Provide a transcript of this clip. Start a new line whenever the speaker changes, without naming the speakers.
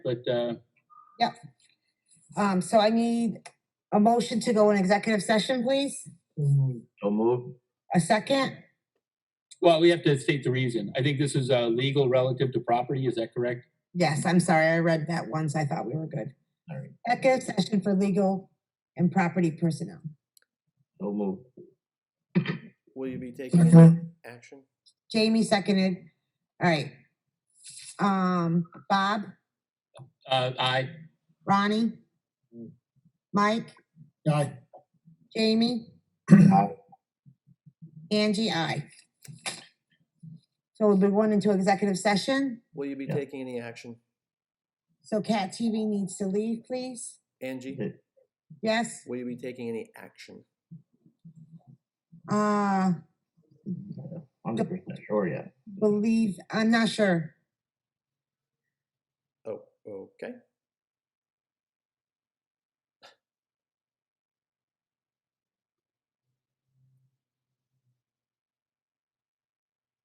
but, uh,
Um, so I need a motion to go in executive session, please.
So moved.
A second?
well, we have to state the reason. I think this is, uh, legal relative to property, is that correct?
Yes, I'm sorry, I read that once. I thought we were good.
All right.
Executive session for legal and property personnel.
So moved.
Will you
Mm-hmm.
be taking any action?
Jamie seconded. All right. Um, Bob,
Uh, aye.
Ronnie, Mike,
Aye.
Jamie,
Aye.
Angie, I. So we'll be going into executive session.
Will you be
Yeah.
taking any action?
So Cat TV needs to leave, please.
Angie,
Yeah.
Yes,
will you be taking any action?
uh,
Hundred percent sure, yeah.
believe, I'm not sure.
Oh, okay.